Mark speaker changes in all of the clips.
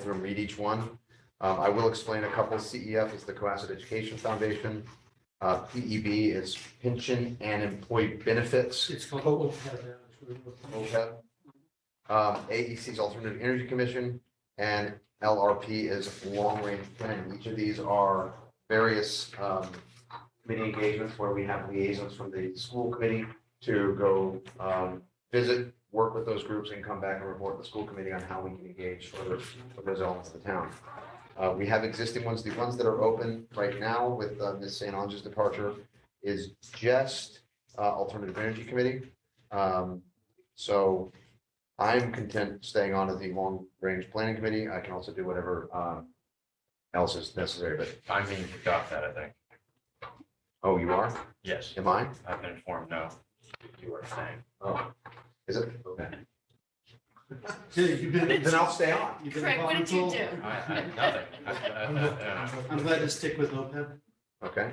Speaker 1: through and read each one. Um, I will explain a couple. CEF is the Cohasset Education Foundation. Uh, PEB is pension and employee benefits.
Speaker 2: It's called OPEB. now, it's really what-
Speaker 1: OPEB. Um, AEC is Alternative Energy Commission and LRP is Long Range Planning. Each of these are various um, committee engagements where we have liaisons from the school committee to go um, visit, work with those groups and come back and report to the school committee on how we can engage further with those elements of the town. Uh, We have existing ones. The ones that are open right now with uh, Ms. St. Ange's departure is just uh, Alternative Energy Committee. Um, so I'm content staying on as the long range planning committee. I can also do whatever um, else is necessary, but,
Speaker 3: I mean, you got that, I think.
Speaker 1: oh, you are?
Speaker 3: Yes,
Speaker 1: Am I?
Speaker 3: I've been informed, no. You were saying.
Speaker 1: Oh, is it? Okay.
Speaker 2: Oh. Yeah, you've been-
Speaker 1: Then I'll stay on.
Speaker 2: you've been
Speaker 4: Craig, what did you
Speaker 2: volatile.
Speaker 4: do?
Speaker 3: I, I, nothing. I- I-
Speaker 2: I'm glad to stick with OPEB.
Speaker 1: Okay.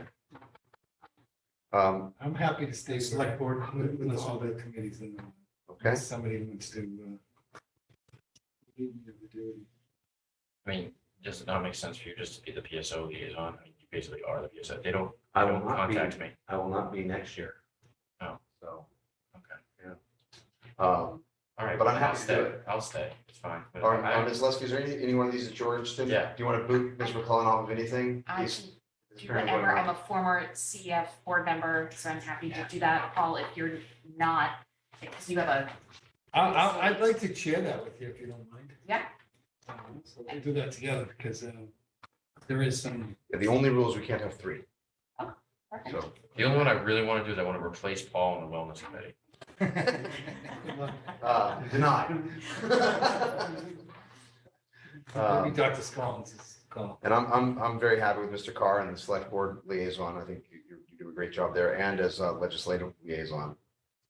Speaker 1: Um,
Speaker 5: I'm happy to stay
Speaker 2: Select
Speaker 5: select
Speaker 2: board.
Speaker 5: with, with all the committees in them.
Speaker 1: okay,
Speaker 5: Somebody wants to, uh, leave me to do it.
Speaker 3: I mean, does it not make sense for you just to be the PSO liaison? I mean, You basically are the PSO. They don't,
Speaker 1: I
Speaker 3: they
Speaker 1: will
Speaker 3: don't
Speaker 1: not be.
Speaker 3: contact me.
Speaker 1: I will not be next year.
Speaker 3: Oh.
Speaker 1: So,
Speaker 3: Okay.
Speaker 1: um,
Speaker 3: All right,
Speaker 1: But
Speaker 3: but
Speaker 1: I'm
Speaker 3: I'll
Speaker 1: happy to do
Speaker 3: stay.
Speaker 1: it.
Speaker 3: I'll stay. It's fine. But
Speaker 1: all right,
Speaker 3: I-
Speaker 1: uh, Ms. Leskey, is there any, any one of these that you're interested in?
Speaker 3: Yeah.
Speaker 1: Do you want to boot Ms. McClellan off of anything?
Speaker 4: I
Speaker 1: These-
Speaker 4: can
Speaker 1: this
Speaker 4: do
Speaker 1: parent
Speaker 4: whatever.
Speaker 1: going
Speaker 4: I'm
Speaker 1: on.
Speaker 4: a former CF board member, so I'm happy to do that. Paul, if you're not, because you have a,
Speaker 5: I, I, I'd like to share that with you if you don't mind.
Speaker 4: Yeah.
Speaker 5: Um, So we'll do that together because, um, there is some,
Speaker 1: The only rule is we can't have three,
Speaker 4: perfect.
Speaker 1: so.
Speaker 3: The only one I really want to do is I want to replace Paul on the wellness committee.
Speaker 1: Uh, denied.
Speaker 5: maybe
Speaker 1: Um,
Speaker 5: Dr. Scollins is gone.
Speaker 1: And I'm, I'm, I'm very happy with Mr. Carr and the select board liaison. I think you, you- you do a great job there and as a legislative liaison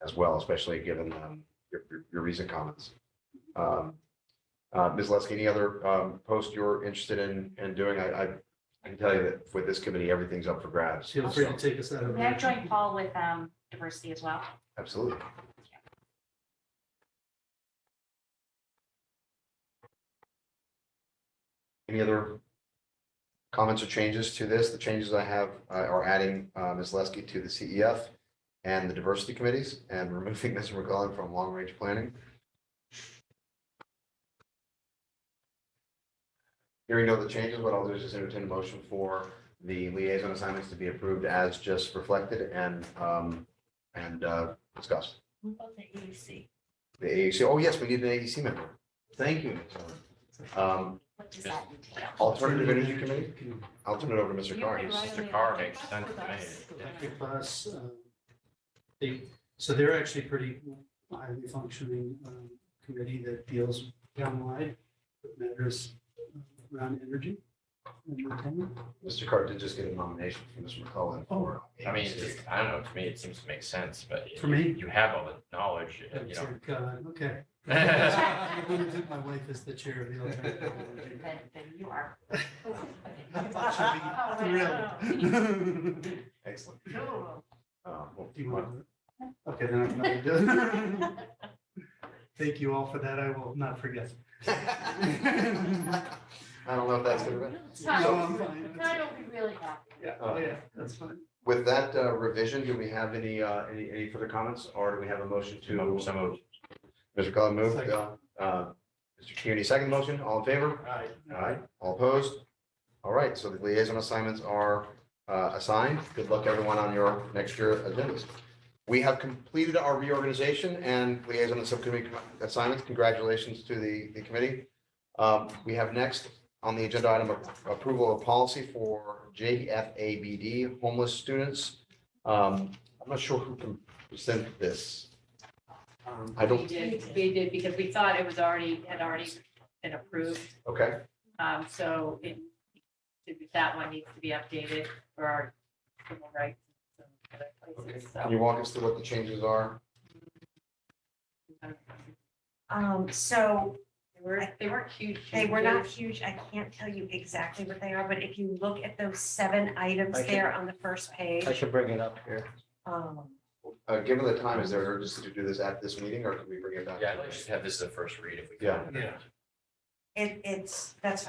Speaker 1: as well, especially given um, your, your- your recent comments. Um, uh, Ms. Leskey, any other um, post you're interested in, in doing? I, I I can tell you that with this committee, everything's up for grabs.
Speaker 2: Feel free to take us out of.
Speaker 4: May I join Paul with um, diversity as well?
Speaker 1: Absolutely. Any other comments or changes to this? The changes I have uh, are adding uh, Ms. Leskey to the CEF and the diversity committees and removing Ms. McGowan from long-range planning. Hearing no other changes, what I'll do is just entertain a motion for the liaison assignments to be approved as just reflected and um, and uh, discuss.
Speaker 4: What about the EDC?
Speaker 1: The AEC, oh yes, we need an AEC member. Thank you. Ms. Owen. Um,
Speaker 4: What does that entail?
Speaker 1: Alternative Energy Committee,
Speaker 2: Can
Speaker 1: I'll turn it over to Mr.
Speaker 4: You
Speaker 1: Carr.
Speaker 4: can
Speaker 1: He's-
Speaker 4: write-
Speaker 3: Mr. Carr makes sense to me.
Speaker 2: that give us, um, They, so they're actually pretty highly functioning um, committee that deals downwide with matters uh, around energy. and entertainment.
Speaker 1: Mr. Carr did just get a nomination from Mr. McCullough
Speaker 2: Oh,
Speaker 1: for.
Speaker 3: I mean, it's
Speaker 1: AEC.
Speaker 3: just- I don't know, to me, it seems to make sense, but
Speaker 2: For me?
Speaker 3: you have all the knowledge, you
Speaker 2: It's
Speaker 3: know.
Speaker 2: like, uh, Okay.
Speaker 3: I
Speaker 2: I limited My wife is the chair of the alternative. energy.
Speaker 4: Then, then you are.
Speaker 2: I thought she'd be thrilled.
Speaker 1: Excellent.
Speaker 4: Cool.
Speaker 1: Uh, well,
Speaker 2: Do you want to? Okay, then I'm not gonna do it. Thank you all for that. I will not forget.
Speaker 1: I don't know if that's gonna be,
Speaker 2: No,
Speaker 4: Kyle
Speaker 2: I'm fine.
Speaker 4: Kyle will be really happy.
Speaker 2: Yeah, oh yeah, that's fine.
Speaker 1: with that uh, revision, do we have any, uh, any, any further comments or do we have a motion to?
Speaker 3: Move, so moved.
Speaker 1: Mr. McCullough moved,
Speaker 2: Second.
Speaker 1: uh, uh, Mr. Kearney, second motion, all in favor?
Speaker 2: Aye.
Speaker 1: Aye, all opposed? All right, so the liaison assignments are uh, assigned. Good luck, everyone, on your next year agendas. We have completed our reorganization and liaison and subcommittee assignments. Congratulations to the, the committee. Um, We have next on the agenda item a- approval of policy for JFABD homeless students. Um, I'm not sure who can present this.
Speaker 2: Um,
Speaker 1: I
Speaker 6: We
Speaker 1: don't,
Speaker 6: did, we did, because we thought it was already, had already been approved,
Speaker 1: okay,
Speaker 6: um, so it, that one needs to be updated for our civil rights. and some other places,
Speaker 1: can
Speaker 6: so.
Speaker 1: you walk us through what the changes are?
Speaker 7: Um, so
Speaker 6: They were, they weren't huge.
Speaker 7: they were not
Speaker 6: changes.
Speaker 7: huge. I can't tell you exactly what they are, but if you look at those seven items there on the first page. I should bring it up here. Um,
Speaker 1: Uh, given the time, is there urgency to do this at this meeting or can we bring it back?
Speaker 3: Yeah, I'd like to have this as a first read if we
Speaker 1: Yeah.
Speaker 3: can.
Speaker 5: Yeah.
Speaker 7: It, it's, that's